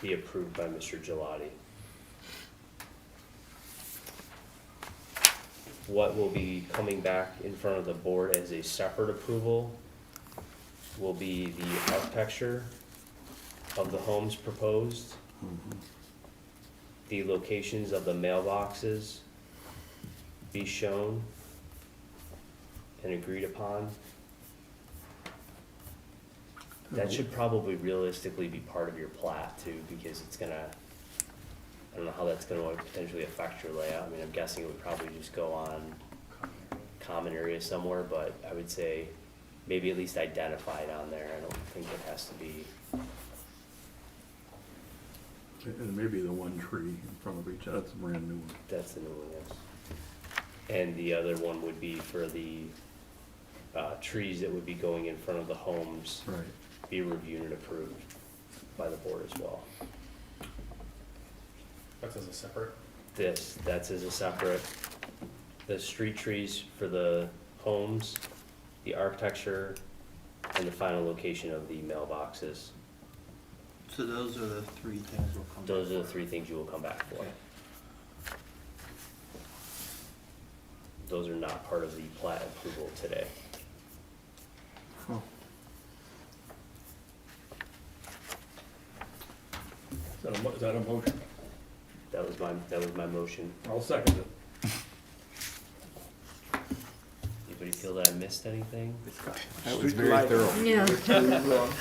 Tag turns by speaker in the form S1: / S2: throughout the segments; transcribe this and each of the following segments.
S1: be approved by Mr. Gelati. What will be coming back in front of the board as a separate approval will be the architecture of the homes proposed, the locations of the mailboxes be shown and agreed upon. That should probably realistically be part of your plat too, because it's gonna, I don't know how that's gonna potentially affect your layout. I mean, I'm guessing it would probably just go on common area somewhere, but I would say maybe at least identify it on there. I don't think it has to be,
S2: And maybe the one tree in front of each, that's a brand new one.
S1: that's the new one, yes. And the other one would be for the, uh, trees that would be going in front of the homes,
S2: Right.
S1: be reviewed and approved by the board as well.
S3: That's as a separate.
S1: this, that's as a separate, the street trees for the homes, the architecture, and the final location of the mailboxes.
S4: So those are the three things we'll come.
S1: Those are the
S4: for.
S1: three things you will come back for.
S4: Okay.
S1: Those are not part of the plat approval today.
S2: Huh.
S3: Is that a, mo- is that a motion?
S1: That was my, that was my motion.
S3: I'll second it.
S1: Anybody feel that I missed anything?
S5: That was very thorough.
S6: Yeah.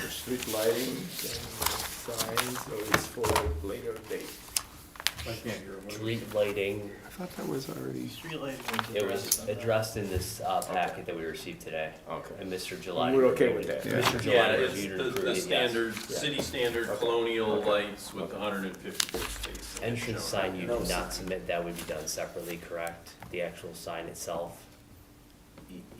S7: Street lighting and signs, so it's for later date.
S3: I can't hear him.
S1: Street lighting,
S5: I thought that was already.
S4: Street lighting
S1: it was addressed in this uh, packet that we received today,
S7: Okay.
S1: and Mr. July.
S7: We're okay with that.
S5: Yeah.
S1: Mr.
S8: Yeah,
S1: July
S8: it's
S1: reviewed and
S8: the,
S1: approved
S8: the
S1: it, yes.
S8: standard, city standard colonial lights with hundred and fifty spaces.
S1: Entrance sign you
S7: No
S1: did
S7: sign.
S1: not submit, that would be done separately, correct? The actual sign itself?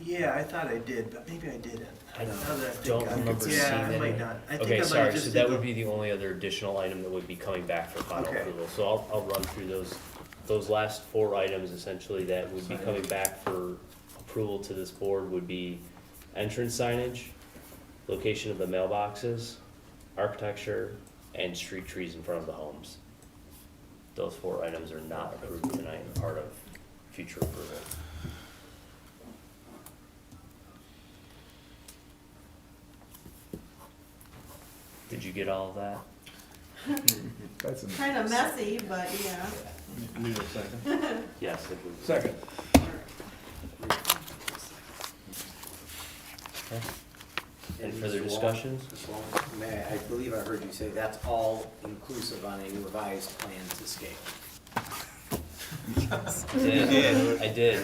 S4: Yeah, I thought I did, but maybe I didn't.
S1: I
S4: Now that I think
S1: don't
S4: of it,
S1: remember seeing
S4: Yeah, I
S1: that.
S4: might not. I think I
S1: Okay,
S4: might
S1: sorry,
S4: just
S1: so
S4: did
S1: that
S4: the-
S1: would be the only other additional item that would be coming back for final
S4: Okay.
S1: approval. So I'll, I'll run through those, those last four items essentially that would be
S4: Signage.
S1: coming back for approval to this board would be entrance signage, location of the mailboxes, architecture, and street trees in front of the homes. Those four items are not approved tonight and part of future approval. Did you get all of that?
S5: That's amazing.
S6: Kind of messy, but yeah.
S3: Need a second?
S1: Yes, it was.
S3: Second.
S1: Any further discussions?
S9: May, I believe I heard you say that's all inclusive on a revised plan to scale.
S1: I did, I did.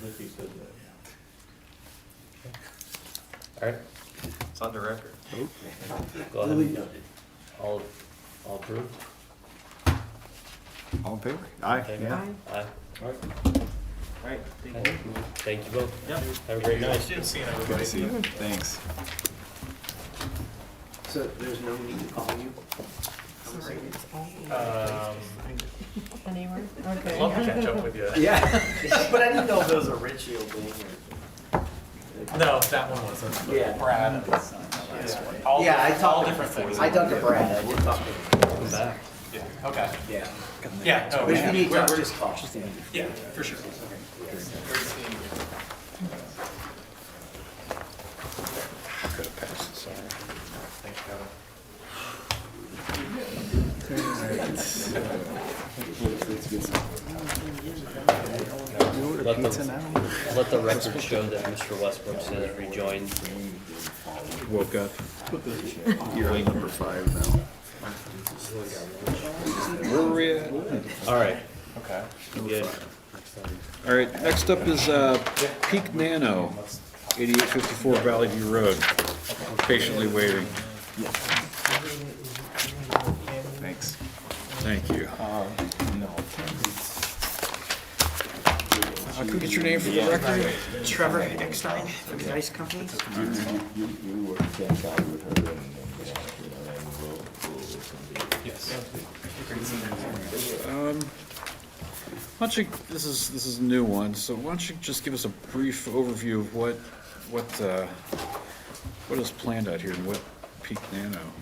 S3: Vicky said that.
S1: All right,
S7: It's on the record.
S1: go
S9: Duly
S1: ahead.
S9: noted.
S1: All, all approved?
S5: All in favor? Aye,
S1: Okay.
S5: yeah.
S1: Aye.
S3: All right.
S4: All right, thank you.
S1: Thank you both. Have a great night.
S7: Good seeing
S5: Good
S7: everybody.
S5: to see you. Thanks.
S9: So there's no need to call you?
S7: Um,
S6: Anywhere?
S7: I'd
S6: Okay.
S7: love to catch up with you.
S9: Yeah, but I didn't know if it was a Richie thing or.
S7: No, that one wasn't.
S9: Yeah.
S7: Brad. and his son, the last one. All
S9: Yeah, I
S7: different-
S9: talked
S7: All
S9: to-
S7: different things.
S9: I talked to Brad, I did talk to him.
S1: Come back.
S7: Yeah, okay.
S9: Yeah.
S7: Yeah, no,
S9: But if you
S7: yeah,
S9: need to, just call.
S7: yeah, for sure. Great seeing you.
S5: Could have passed this already.
S7: Thanks, Kevin.
S5: You order
S1: Let them-
S5: pizza now?
S1: Let the record show that Mr. Westbrook says rejoined.
S5: Woke up. You're on number five now. Where were we at?
S1: All right,
S7: Okay.
S1: good.
S5: All right, next up is uh, Peak Nano, 8854 Valley View Road. Patiently waiting. Thanks. Thank you. Uh, Can we get your name for the record?
S4: Trevor Eckstein from the Ice Company.
S5: Why don't you, this is, this is a new one, so why don't you just give us a brief overview of what, what, uh, what is planned out here and what Peak Nano